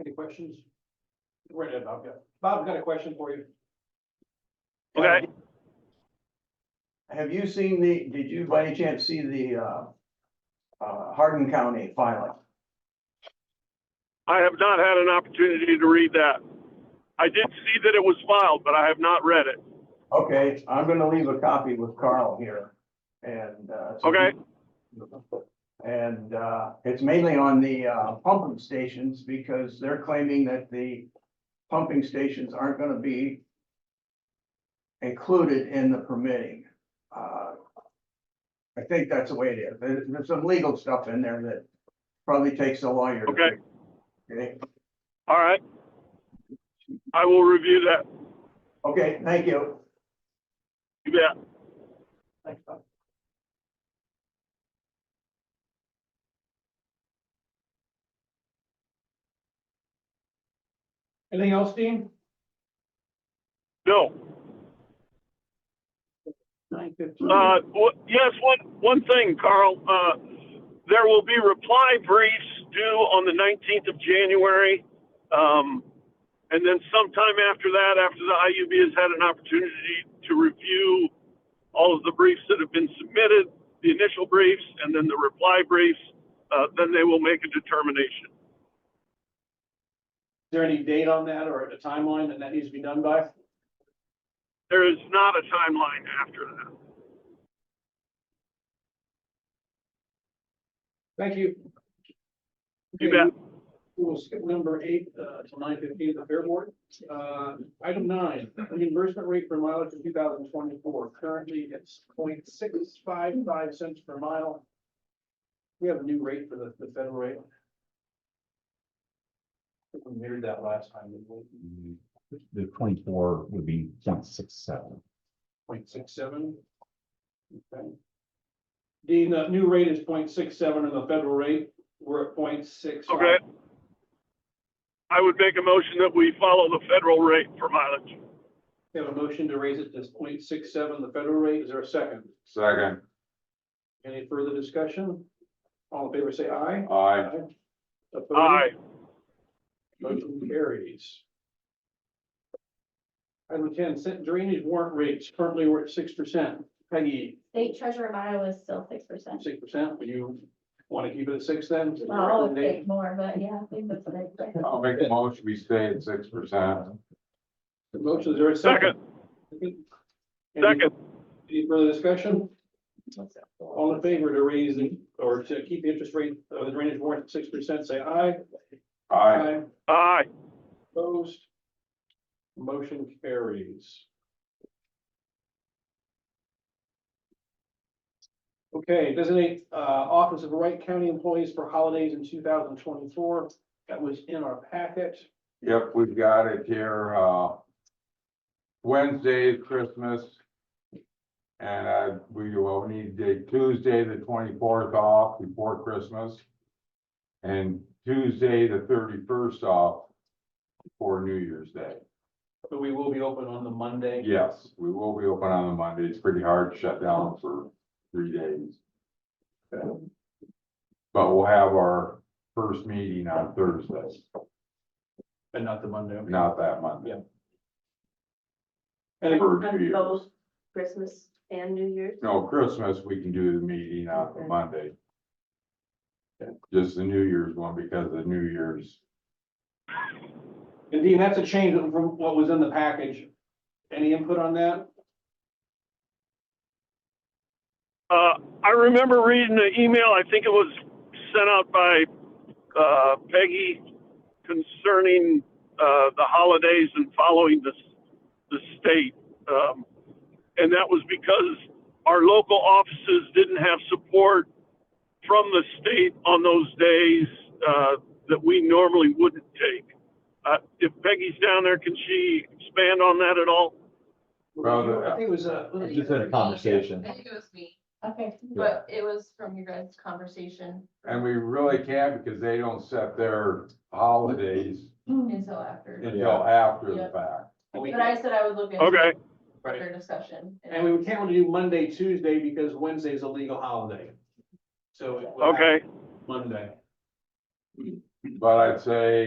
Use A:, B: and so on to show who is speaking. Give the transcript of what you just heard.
A: Any questions? Right ahead, Bob, yeah. Bob, I've got a question for you.
B: Okay.
C: Have you seen the, did you by any chance see the, uh, uh, Hardin County filing?
B: I have not had an opportunity to read that. I did see that it was filed, but I have not read it.
C: Okay, I'm gonna leave a copy with Carl here and, uh. so-
B: Okay.
C: And, uh, it's mainly on the, uh, pumping stations because they're claiming that the pumping stations aren't gonna be included in the permitting. Uh, I think that's the way it is. There- There's some legal stuff in there that probably takes a lawyer. to
B: Okay.
C: fix. Okay,
B: All right. I will review that.
C: okay, thank you.
B: You bet.
A: Thanks, Bob. Anything else, Dean?
B: No.
A: Nine
B: Uh, wh- yes, one, one thing, Carl, uh, there will be reply briefs due on the nineteenth of January. Um, and then sometime after that, after the IUB has had an opportunity to review all of the briefs that have been submitted, the initial briefs and then the reply briefs, uh, then they will make a determination.
A: Is there any date on that or a timeline that that needs to be done by?
B: There is not a timeline after that.
A: Thank you.
B: You
A: Okay,
B: bet.
A: We will skip number eight, uh, till nine fifteen, the fair board. Uh, item nine, reimbursement rate for mileage in two thousand twenty-four, currently it's 0.655 cents per mile. We have a new rate for the, the federal rate. I think We mirrored that last time, didn't we?
D: The twenty-four would be point six seven.
A: point six seven. Okay. Dean, the new rate is 0.67 and the federal rate, we're at 0.65.
B: Okay. I would make a motion that we follow the federal rate for mileage.
A: We have a motion to raise it to 0.67, the federal rate, is there a second?
E: Second,
A: Any further discussion? All in favor, say aye.
E: aye.
A: Opposed?
B: Aye.
A: Motion carries. Item ten, cent drainage warrant rates, currently we're at six percent, Peggy,
F: State treasurer of Iowa is still six percent.
A: six percent, would you want to keep it at six then? Is that your
F: Well, I would
A: recommendation?
F: think more, but yeah, I think that's what I
E: I'll make the motion, we stay at six percent.
A: Motion, is there a second?
B: Second.
A: Any-
B: Second.
A: Any further discussion?
F: said.
A: All in favor to raise the, or to keep the interest rate of the drainage warrant at six percent, say aye.
E: Aye,
B: Aye.
A: Opposed? Motion carries. Okay, designate uh Office of Wright County Employees for Holidays in two thousand twenty-four. That was in our packet.
E: yep, we've got it here, uh. Wednesday, is Christmas. And uh, we will need the Tuesday, the twenty-fourth off before Christmas. And Tuesday, the thirty-first off for New Year's Day.
A: But we will be open on the Monday.
E: Yes, we will be open on the Monday. It's pretty hard to shut down for three days.
A: Uh,
E: But we'll have our first meeting on Thursday,
A: But not the Monday.
E: not that Monday.
A: And
E: For
G: On
E: New Year's.
G: both Christmas and New Year's.
E: No, Christmas, we can do the meeting on the Monday. Just the New Year's one because the New Year's,
A: And Dean, that's a change from what was in the package. Any input on that?
B: Uh, I remember reading the email, I think it was sent out by, uh, Peggy concerning, uh, the holidays and following the, s- the state. Um, and that was because our local offices didn't have support from the state on those days, uh, that we normally wouldn't take. Uh, if Peggy's down there, can she expand on that at all?
E: Well, the-
A: I think it was uh
D: Just had a conversation.
G: I think it was me,
F: Okay,
G: but it was from your guys' conversation
E: and we really can't because they don't set their holidays
G: until after.
E: until after the fact.
A: we
G: But I said I would look into
B: Okay,
A: Right.
G: their discussion.
A: And we can't really do Monday, Tuesday because Wednesday is a legal holiday. So. it will have
B: okay.
A: Monday.
E: But I'd say